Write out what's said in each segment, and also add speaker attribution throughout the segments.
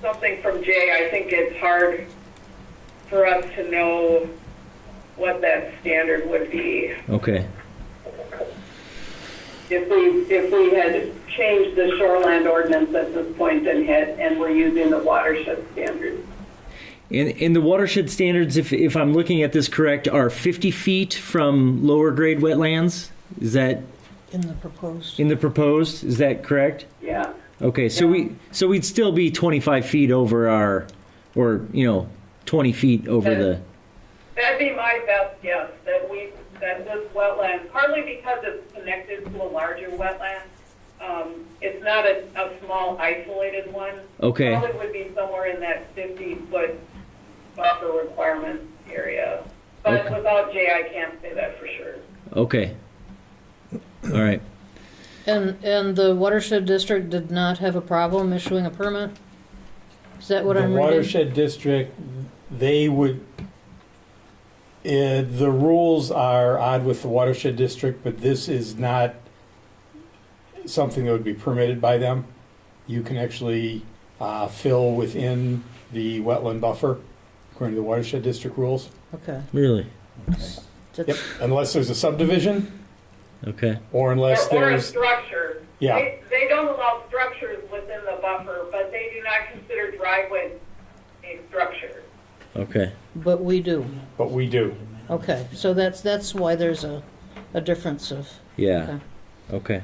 Speaker 1: something from Jay, I think it's hard for us to know what that standard would be.
Speaker 2: Okay.
Speaker 1: If we, if we had changed the shoreland ordinance at this point and had, and were using the watershed standard.
Speaker 2: And, and the watershed standards, if, if I'm looking at this correct, are 50 feet from lower grade wetlands? Is that
Speaker 3: in the proposed.
Speaker 2: in the proposed? Is that correct?
Speaker 1: Yeah,
Speaker 2: Okay, so we, so we'd still be 25 feet over our, or, you know, 20 feet over the,
Speaker 1: that'd be my best guess, that we, that this wetland, partly because it's connected to a larger wetland. Um, it's not a, a small isolated one.
Speaker 2: Okay.
Speaker 1: Probably would be somewhere in that fifty foot buffer requirement area. But
Speaker 2: Okay.
Speaker 1: without Jay, I can't say that for sure.
Speaker 2: okay. All right.
Speaker 3: And, and the watershed district did not have a problem issuing a permit? Is that what
Speaker 4: the
Speaker 3: I'm reading?
Speaker 4: watershed district, they would. eh, the rules are odd with the watershed district, but this is not something that would be permitted by them. You can actually uh, fill within the wetland buffer according to the watershed district rules.
Speaker 3: Okay.
Speaker 2: Really?
Speaker 4: Yep,
Speaker 3: That's-
Speaker 4: unless there's a subdivision
Speaker 2: Okay.
Speaker 4: or unless
Speaker 1: Or- Or a
Speaker 4: there's
Speaker 1: structure.
Speaker 4: Yeah.
Speaker 1: They, they don't allow structures within the buffer, but they do not consider driveways a structure.
Speaker 2: Okay.
Speaker 3: But we do.
Speaker 4: but we do.
Speaker 3: Okay, so that's, that's why there's a, a difference of,
Speaker 2: Yeah. Okay.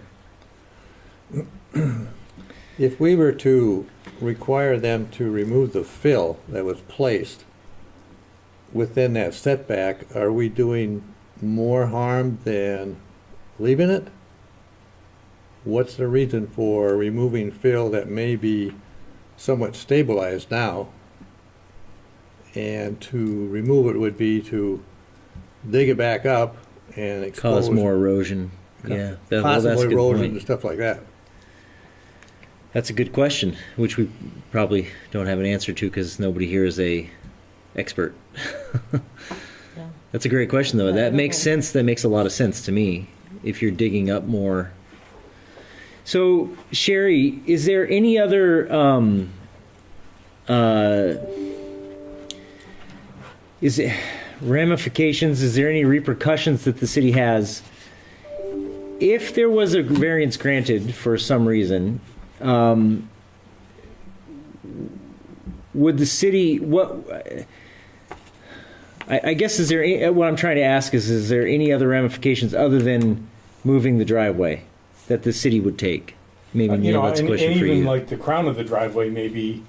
Speaker 5: If we were to require them to remove the fill that was placed within that setback, are we doing more harm than leaving it? What's the reason for removing fill that may be somewhat stabilized now? And to remove it would be to dig it back up and expose
Speaker 2: Cause more erosion. Yeah. That- well, that's
Speaker 5: possible
Speaker 2: a good
Speaker 5: erosion
Speaker 2: point.
Speaker 5: and stuff like that.
Speaker 2: That's a good question, which we probably don't have an answer to because nobody here is a expert.
Speaker 3: Yeah.
Speaker 2: That's a great question, though.
Speaker 3: Yeah, I
Speaker 2: That
Speaker 3: don't
Speaker 2: makes
Speaker 3: know.
Speaker 2: sense. That makes a lot of sense to me. If you're digging up more, so Sherry, is there any other? Um, uh, is it ramifications? Is there any repercussions that the city has? If there was a variance granted for some reason, um, would the city what I, I guess is there any, what I'm trying to ask is is there any other ramifications other than moving the driveway that the city would take? Maybe
Speaker 4: Uh, you
Speaker 2: Neil,
Speaker 4: know,
Speaker 2: that's a
Speaker 4: and,
Speaker 2: question
Speaker 4: and
Speaker 2: for
Speaker 4: even
Speaker 2: you.
Speaker 4: like the crown of the driveway maybe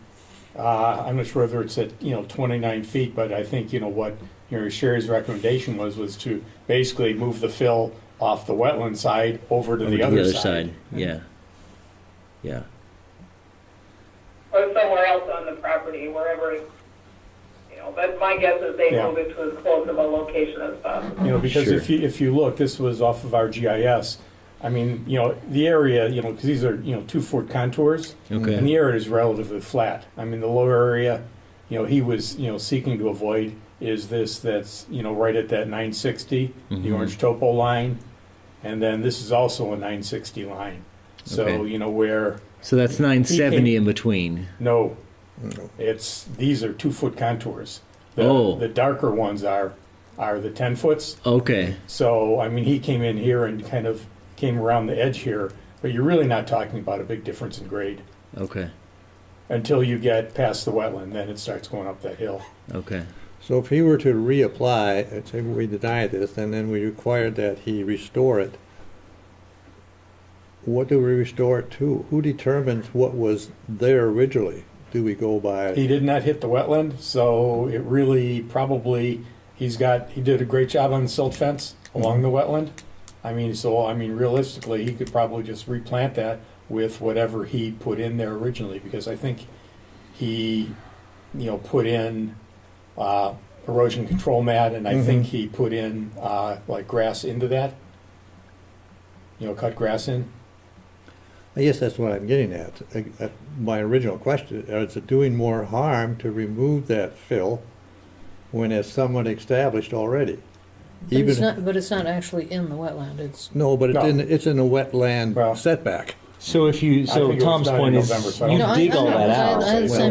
Speaker 4: uh, I'm not sure whether it's at you know 29 feet, but I think you know what you know Sherry's recommendation was was to basically move the fill off the wetland side over to
Speaker 2: Over
Speaker 4: the
Speaker 2: to
Speaker 4: other,
Speaker 2: other
Speaker 4: side.
Speaker 2: yeah, yeah,
Speaker 1: or somewhere else on the property, wherever, it's you know, but my guess is they
Speaker 4: Yeah.
Speaker 1: move it to as close of a location as possible.
Speaker 4: You know, because
Speaker 2: Sure.
Speaker 4: if you if you look, this was off of our GIS. I mean, you know, the area, you know, because these are you know two foot contours,
Speaker 2: Okay.
Speaker 4: and the area is relatively flat. I mean, the lower area, you know, he was you know seeking to avoid is this that's you know right at that 960,
Speaker 2: Mm-hmm.
Speaker 4: the orange topo line, and then this is also a 960 line. So
Speaker 2: Okay.
Speaker 4: you know where
Speaker 2: So that's 970 in between.
Speaker 4: no, it's these are two foot contours. The,
Speaker 2: Oh.
Speaker 4: the darker ones are are the 10 foots.
Speaker 2: Okay,
Speaker 4: So, I mean, he came in here and kind of came around the edge here, but you're really not talking about a big difference in grade
Speaker 2: okay,
Speaker 4: until you get past the wetland, then it starts going up that hill.
Speaker 2: okay,
Speaker 5: So if he were to reapply, and say we deny this, and then we required that he restore it, what do we restore it to? Who determines what was there originally? Do we go by,
Speaker 4: He did not hit the wetland, so it really probably, he's got, he did a great job on the silt fence along the wetland. I mean, so, I mean, realistically, he could probably just replant that with whatever he put in there originally, because I think he, you know, put in uh, erosion control mat, and I think he put in uh, like grass into that. You know, cut grass in.
Speaker 5: I guess that's what I'm getting at. Uh, uh, My original question, is it doing more harm to remove that fill when it's somewhat established already?
Speaker 3: but it's
Speaker 5: Even,
Speaker 3: not, but it's not actually in the wetland, it's,
Speaker 5: no, but it's
Speaker 4: No.
Speaker 5: in, it's in a wetland
Speaker 4: Well-
Speaker 5: setback.
Speaker 6: So if you,
Speaker 4: I
Speaker 6: so
Speaker 4: think it was
Speaker 6: Tom's
Speaker 4: done in
Speaker 6: point is,
Speaker 4: November, so I
Speaker 6: you
Speaker 3: don't-
Speaker 6: dig
Speaker 3: No, I- I
Speaker 6: all that
Speaker 3: know, I-
Speaker 6: out.
Speaker 3: I understand